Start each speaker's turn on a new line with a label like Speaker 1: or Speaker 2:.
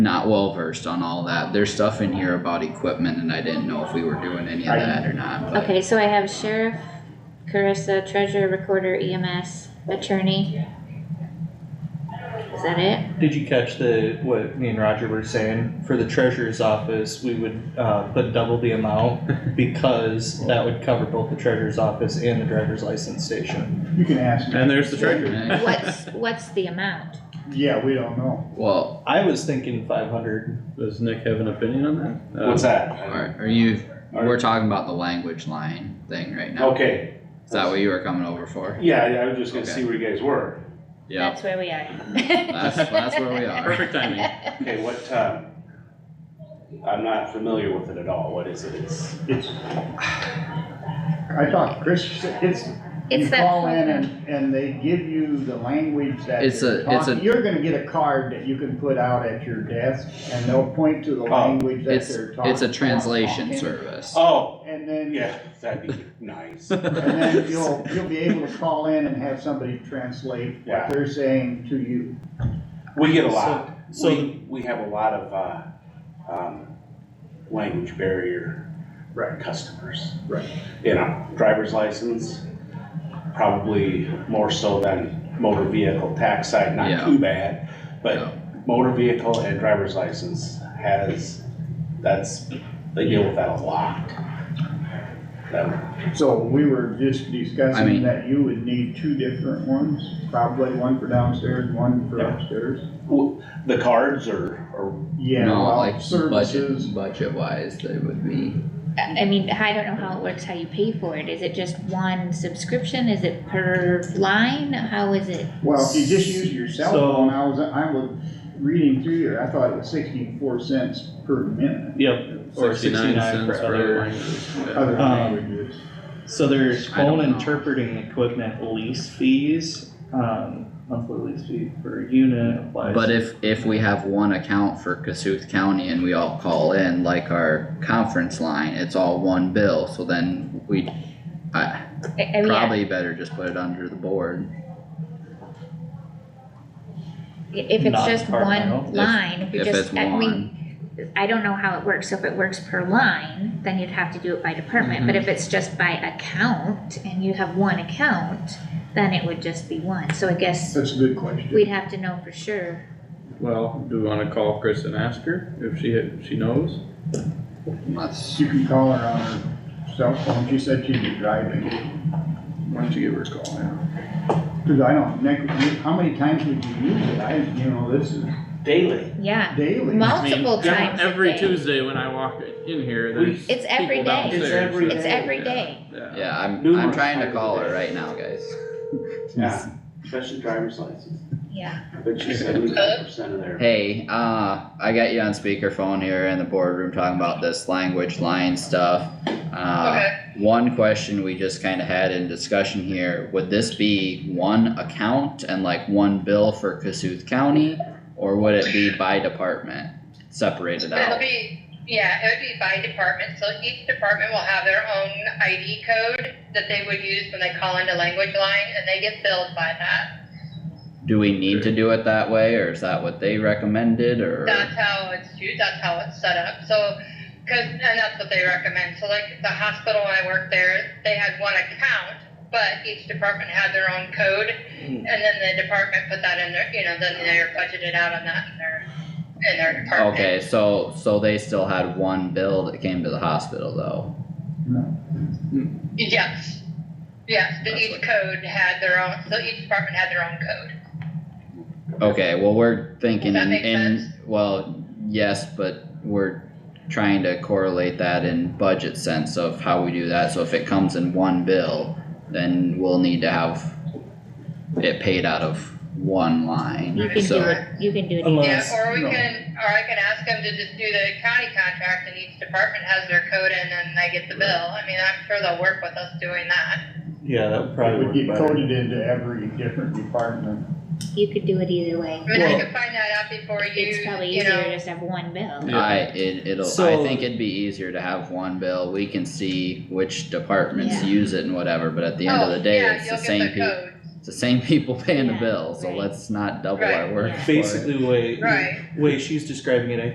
Speaker 1: not well versed on all that. There's stuff in here about equipment and I didn't know if we were doing any of that or not, but.
Speaker 2: Okay, so I have sheriff, Carissa, treasurer, recorder, EMS, attorney. Is that it?
Speaker 3: Did you catch the, what me and Roger were saying? For the treasurer's office, we would, uh, put double the amount because that would cover both the treasurer's office and the driver's license station.
Speaker 4: You can ask me.
Speaker 5: And there's the treasure.
Speaker 1: Okay,
Speaker 2: What's, what's the amount?
Speaker 4: Yeah, we don't know.
Speaker 1: Well,
Speaker 3: I was thinking five hundred.
Speaker 5: Does Nick have an opinion on that? Uh,
Speaker 6: What's that?
Speaker 1: are, are you, we're talking about the language line thing right now.
Speaker 6: Okay,
Speaker 1: Is that what you were coming over for?
Speaker 6: yeah, yeah, I was just gonna see where you guys were.
Speaker 1: Yeah,
Speaker 2: That's where we are.
Speaker 1: that's, that's where we are.
Speaker 5: Perfect timing.
Speaker 6: Okay, what, uh, I'm not familiar with it at all. What is it? It's,
Speaker 4: It's. I thought Chris, said it's, you
Speaker 2: It's that
Speaker 4: call in
Speaker 2: program.
Speaker 4: and, and they give you the language that
Speaker 1: It's
Speaker 4: you're
Speaker 1: a- it's a-
Speaker 4: talking- You're gonna get a card that you can put out at your desk and they'll point to the language that
Speaker 1: Oh, It's,
Speaker 4: they're talking.
Speaker 1: it's a translation
Speaker 4: about.
Speaker 1: service.
Speaker 6: oh,
Speaker 4: And then,
Speaker 6: yeah,
Speaker 4: and
Speaker 6: that'd be nice.
Speaker 4: then you'll, you'll be able to call in and have somebody translate
Speaker 6: Yeah.
Speaker 4: what they're saying to you.
Speaker 6: We get a lot.
Speaker 3: So- so
Speaker 6: We, we have a lot of, uh, um, language barrier
Speaker 4: Right.
Speaker 6: customers.
Speaker 4: Right.
Speaker 6: You know, driver's license, probably more so than motor vehicle tax side,
Speaker 1: Yeah.
Speaker 6: not too bad.
Speaker 1: Yeah.
Speaker 6: But motor vehicle and driver's license has, that's, they deal with that a lot. That-
Speaker 4: So we were just
Speaker 1: I mean-
Speaker 4: discussing that you would need two different ones, probably one for downstairs, one for
Speaker 6: Yeah.
Speaker 4: upstairs.
Speaker 6: w- The cards are, are,
Speaker 4: Yeah,
Speaker 1: No,
Speaker 4: well,
Speaker 1: like
Speaker 4: services.
Speaker 1: budget, budget wise, they would be.
Speaker 2: I I mean, I don't know how it works, how you pay for it. Is it just one subscription? Is it per line? How is it?
Speaker 4: Well, if you just use your cell
Speaker 3: So-
Speaker 4: phone, I was, I was reading through here, I thought it was sixty-four cents per minute,
Speaker 3: Yep. Or sixty-nine for
Speaker 5: cents
Speaker 3: other.
Speaker 5: line.
Speaker 4: other
Speaker 3: Um,
Speaker 4: languages.
Speaker 3: So there's
Speaker 1: I don't
Speaker 3: phone
Speaker 1: know.
Speaker 3: interpreting equipment lease fees, um, monthly lease fee per unit applies.
Speaker 1: But if, if we have one account for Cassuth County and we all call in, like our conference line, it's all one bill, so then we, I,
Speaker 2: I, I mean, I-
Speaker 1: probably better just put it under the board.
Speaker 2: if it's
Speaker 3: Not
Speaker 2: just
Speaker 3: departmental.
Speaker 2: one
Speaker 1: If-
Speaker 2: line, if you're
Speaker 1: If
Speaker 2: just,
Speaker 1: it's
Speaker 2: I mean,
Speaker 1: one,
Speaker 2: I don't know how it works. So if it works per line, then you'd have to do it by department. But if it's just by account and you have one account, then it would just be one. So I guess
Speaker 4: That's a good question.
Speaker 2: we'd have to know for sure.
Speaker 5: Well, do we wanna call Chris and ask her if she, if she knows?
Speaker 1: let's,
Speaker 4: You can call her on her cell phone, she said she'd be driving,
Speaker 5: Why don't you give her a call now?
Speaker 4: cause I don't, Nick, you- how many times would you use it? I, you know, this is
Speaker 6: daily.
Speaker 2: Yeah,
Speaker 4: daily.
Speaker 5: I mean,
Speaker 2: multiple
Speaker 5: yeah,
Speaker 2: times a
Speaker 5: Every
Speaker 2: day.
Speaker 5: Tuesday when I walk in here,
Speaker 6: We-
Speaker 5: there's.
Speaker 2: It's every
Speaker 5: people
Speaker 2: day. It's
Speaker 5: downstairs.
Speaker 6: every
Speaker 2: It's every day.
Speaker 5: Yeah.
Speaker 1: yeah, I'm, I'm
Speaker 6: Numerous
Speaker 1: trying to
Speaker 6: times a
Speaker 1: call her
Speaker 6: day.
Speaker 1: right now, guys.
Speaker 6: Yeah, especially driver's license.
Speaker 2: Yeah.
Speaker 6: I bet you seventy-five percent of their
Speaker 1: Hey, uh, I got you on speakerphone here in the boardroom talking about this language line stuff. Uh, one question we just kinda had in discussion here, would this be one account and like one bill for Cassuth County? Or would it be by department, separated
Speaker 7: It'll
Speaker 1: out?
Speaker 7: be, yeah, it would be by department, so each department will have their own ID code that they would use when they call into language line, and they get billed by that.
Speaker 1: Do we need to do it that way, or is that what they recommended, or?
Speaker 7: That's how it's used, that's how it's set up, so, cause, and that's what they recommend, so like, the hospital when I worked there, they had one account, but each department had their own code,
Speaker 1: Hmm.
Speaker 7: and then the department put that in their, you know, then they're budgeted out on that in their, in their department.
Speaker 1: Okay, so, so they still had one bill that came to the hospital though?
Speaker 7: Yes, yes, the
Speaker 1: That's
Speaker 7: each
Speaker 1: what-
Speaker 7: code had their own, so each department had their own code.
Speaker 1: Okay, well, we're thinking
Speaker 7: Does that
Speaker 1: in,
Speaker 7: make
Speaker 1: in,
Speaker 7: sense?
Speaker 1: well, yes, but we're trying to correlate that in budget sense of how we do that, so if it comes in one bill, then we'll need to have it paid out of one
Speaker 2: You
Speaker 1: line,
Speaker 2: can do
Speaker 1: so.
Speaker 2: it, you can do it.
Speaker 7: Yeah,
Speaker 3: Unless,
Speaker 7: or we
Speaker 4: no.
Speaker 7: can, or I can ask them to just do the county contract and each department has their code and then they get the bill. I mean, I'm sure they'll work with us doing that.
Speaker 3: yeah, that
Speaker 4: It
Speaker 3: would
Speaker 4: would
Speaker 3: probably
Speaker 4: get
Speaker 3: work better.
Speaker 4: coded into every different department.
Speaker 2: You could do it either way.
Speaker 7: I mean, I
Speaker 3: Well-
Speaker 7: could find that out before you,
Speaker 2: It's probably
Speaker 7: you
Speaker 2: easier to
Speaker 7: know.
Speaker 2: just have one bill.
Speaker 5: Yeah.
Speaker 1: I, it, it'll, I
Speaker 3: So-
Speaker 1: think it'd be easier to have one bill, we can see which departments
Speaker 2: Yeah.
Speaker 1: use it and whatever, but at the end of
Speaker 7: Oh,
Speaker 1: the day,
Speaker 7: yeah,
Speaker 1: it's the
Speaker 7: you'll get
Speaker 1: same people.
Speaker 7: codes.
Speaker 1: It's the same people paying the
Speaker 2: Yeah,
Speaker 1: bill, so
Speaker 2: right.
Speaker 1: let's not double our
Speaker 7: Right.
Speaker 1: work for it.
Speaker 3: Basically, the way,
Speaker 7: Right.
Speaker 3: way she's describing it, I